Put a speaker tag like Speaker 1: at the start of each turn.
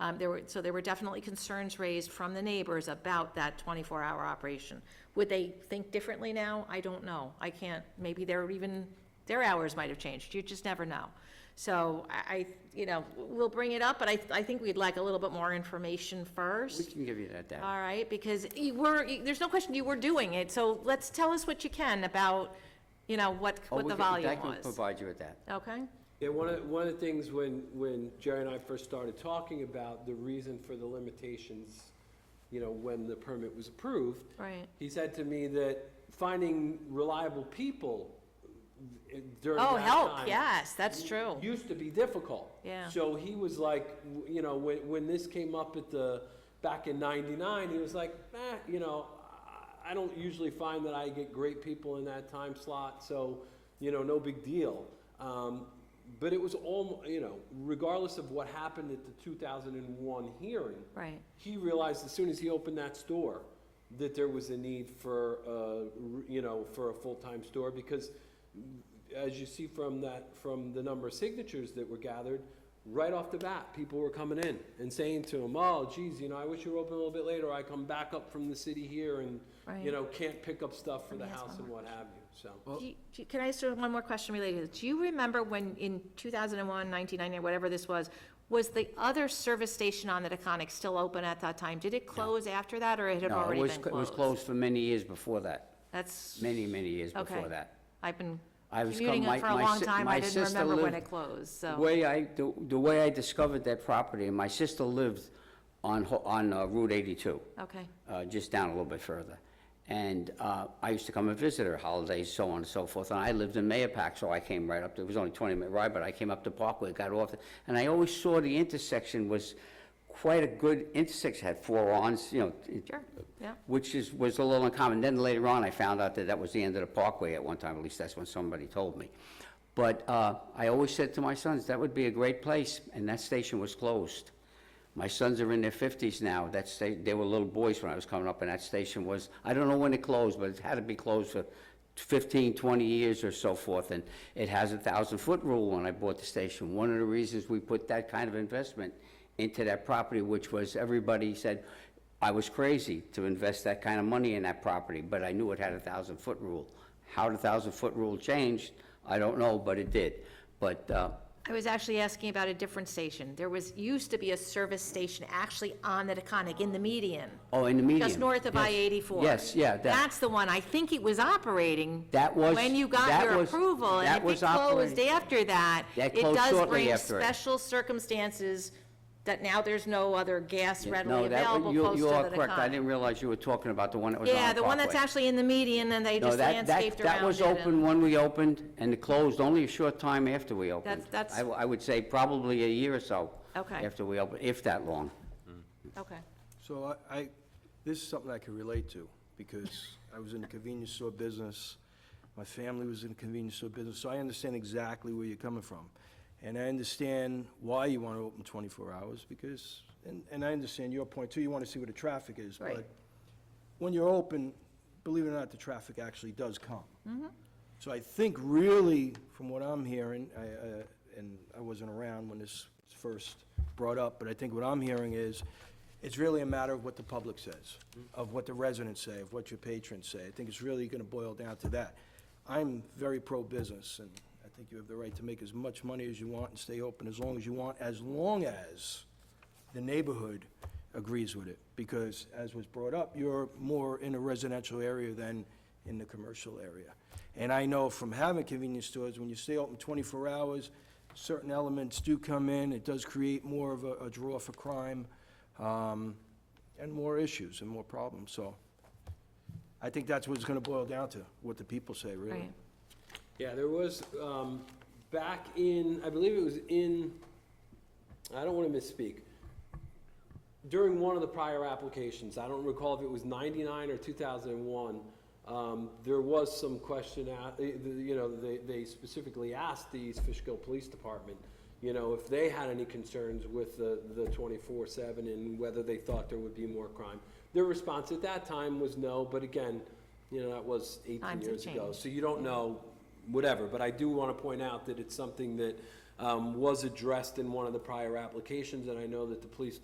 Speaker 1: Um, There were, so there were definitely concerns raised from the neighbors about that 24-hour operation. Would they think differently now? I don't know. I can't, maybe they're even, their hours might have changed. You just never know. So I, I, you know, we'll bring it up, but I, I think we'd like a little bit more information first.
Speaker 2: We can give you that data.
Speaker 1: All right, because you were, you- there's no question you were doing it, so let's, tell us what you can about, you know, what,
Speaker 2: Oh,
Speaker 1: what
Speaker 2: we
Speaker 1: the
Speaker 2: can- I
Speaker 1: volume
Speaker 2: can
Speaker 1: was.
Speaker 2: Provide you with that.
Speaker 1: Okay?
Speaker 3: Yeah, one of, one of the things when, when Jerry and I first started talking about the reason for the limitations, you know, when the permit was approved.
Speaker 1: Right.
Speaker 3: He said to me that finding reliable people eh, during that
Speaker 1: Oh,
Speaker 3: time.
Speaker 1: help, yes, that's true.
Speaker 3: Used to be difficult.
Speaker 1: Yeah.
Speaker 3: So he was like, w- you know, when, when this came up at the, back in ninety-nine, he was like, eh, you know, I, I don't usually find that I get great people in that time slot, so, you know, no big deal. Um, but it was almost, you know, regardless of what happened at the two thousand and one hearing,
Speaker 1: Right.
Speaker 3: he realized as soon as he opened that store that there was a need for, uh, r- you know, for a full-time store because as you see from that, from the number of signatures that were gathered, right off the bat, people were coming in and saying to them, oh, geez, you know, I wish you were open a little bit later. I come back up from the city here and,
Speaker 1: Right.
Speaker 3: you know, can't pick up stuff for
Speaker 1: Let
Speaker 3: the
Speaker 1: me ask
Speaker 3: house
Speaker 1: one
Speaker 3: and what have you, so.
Speaker 1: Oh. Do you- do you- Can I ask you one more question related to this? Do you remember when, in 2001, 1990, whatever this was, was the other service station on the Taconic still open at that time? Did it close after that, or it had
Speaker 2: No, it
Speaker 1: already
Speaker 2: was
Speaker 1: been
Speaker 2: cl-
Speaker 1: closed?
Speaker 2: It was closed for many years before that,
Speaker 1: That's,
Speaker 2: many, many years
Speaker 1: okay.
Speaker 2: before that.
Speaker 1: I've been
Speaker 2: I was com-
Speaker 1: commuting
Speaker 2: my-
Speaker 1: it for a
Speaker 2: my
Speaker 1: long
Speaker 2: si-
Speaker 1: time.
Speaker 2: my
Speaker 1: I didn't
Speaker 2: sister
Speaker 1: remember when
Speaker 2: lived-
Speaker 1: it closed,
Speaker 2: The
Speaker 1: so,
Speaker 2: way I, the the way I discovered that property, and my sister lived on, Ho- on uh, Route 82.
Speaker 1: okay,
Speaker 2: uh, just down a little bit further. And uh, I used to come and visit her holidays, so on and so forth. And I lived in Mayapack, so I came right up, to- it was only 20-minute ride, but I came up to Parkway, got off. And I always saw the intersection was quite a good intersection, had four ons, you know. it-
Speaker 1: sure, yeah.
Speaker 2: Which is, was a little uncommon. Then later on, I found out that that was the end of the Parkway at one time, at least that's when somebody told me. But uh, I always said to my sons, that would be a great place, and that station was closed. My sons are in their fifties now. That sta- they were little boys when I was coming up, and that station was, I don't know when it closed, but it had to be closed for 15, 20 years or so forth, and it has a thousand-foot rule when I bought the station. One of the reasons we put that kind of investment into that property, which was, everybody said, I was crazy to invest that kind of money in that property, but I knew it had a thousand-foot rule. How the thousand-foot rule changed, I don't know, but it did. But, uh,
Speaker 1: I was actually asking about a different station. There was, used to be a service station actually on the Taconic in the median,
Speaker 2: oh, in the median.
Speaker 1: just north of
Speaker 2: yes.
Speaker 1: I-84.
Speaker 2: Yes, yeah, that,
Speaker 1: That's the one. I think it was operating.
Speaker 2: That was-
Speaker 1: When you got
Speaker 2: that
Speaker 1: your
Speaker 2: was-
Speaker 1: approval,
Speaker 2: that
Speaker 1: and if
Speaker 2: was
Speaker 1: it closed
Speaker 2: operating.
Speaker 1: after that,
Speaker 2: That
Speaker 1: it
Speaker 2: closed
Speaker 1: does
Speaker 2: shortly
Speaker 1: bring
Speaker 2: after it.
Speaker 1: special circumstances that now there's no other gas readily
Speaker 2: no, that,
Speaker 1: available
Speaker 2: you-
Speaker 1: close to
Speaker 2: you
Speaker 1: the
Speaker 2: are correct. I
Speaker 1: Taconic.
Speaker 2: didn't realize you were talking about the one that was on
Speaker 1: Yeah, the one that's
Speaker 2: Parkway.
Speaker 1: actually in the median, and they
Speaker 2: No,
Speaker 1: just
Speaker 2: that- that-
Speaker 1: landscaped around it.
Speaker 2: That was
Speaker 1: and-
Speaker 2: open when we opened, and it closed only a short time after we opened.
Speaker 1: that's-
Speaker 2: I w- I would say probably a year or so.
Speaker 1: Okay.
Speaker 2: After we opened, if that long.
Speaker 1: Okay.
Speaker 4: So I, I- this is something I could relate to, because I was in the convenience store business, my family was in the convenience store business, so I understand exactly where you're coming from. And I understand why you want to open 24 hours, because, and, and I understand your point too, you want to see where the traffic is.
Speaker 1: Right.
Speaker 4: But when you're open, believe it or not, the traffic actually does come. So I think really, from what I'm hearing, I, uh, and I wasn't around when this was first brought up, but I think what I'm hearing is, it's really a matter of what the public says, of what the residents say, of what your patrons say. I think it's really gonna boil down to that. I'm very pro-business, and I think you have the right to make as much money as you want and stay open as long as you want, as long as the neighborhood agrees with it, because as was brought up, you're more in a residential area than in the commercial area. And I know from having convenience stores, when you stay open 24 hours, certain elements do come in, it does create more of a a draw for crime, um, and more issues and more problems, so I think that's what it's gonna boil down to, what the people say, really.
Speaker 1: Right.
Speaker 3: Yeah, there was, um, back in, I believe it was in, I don't wanna misspeak. During one of the prior applications, I don't recall if it was ninety-nine or two thousand and one, um, there was some question out, eh, the- you know, they, they specifically asked the East Fishkill Police Department, you know, if they had any concerns with the, the twenty-four seven and whether they thought there would be more crime. Their response at that time was no, but again, you know, that was eighteen
Speaker 1: Times have
Speaker 3: years ago,
Speaker 1: changed. Mm-hmm.
Speaker 3: so you don't know, whatever, but I do want to point out that it's something that um, was addressed in one of the prior applications, and I know that the police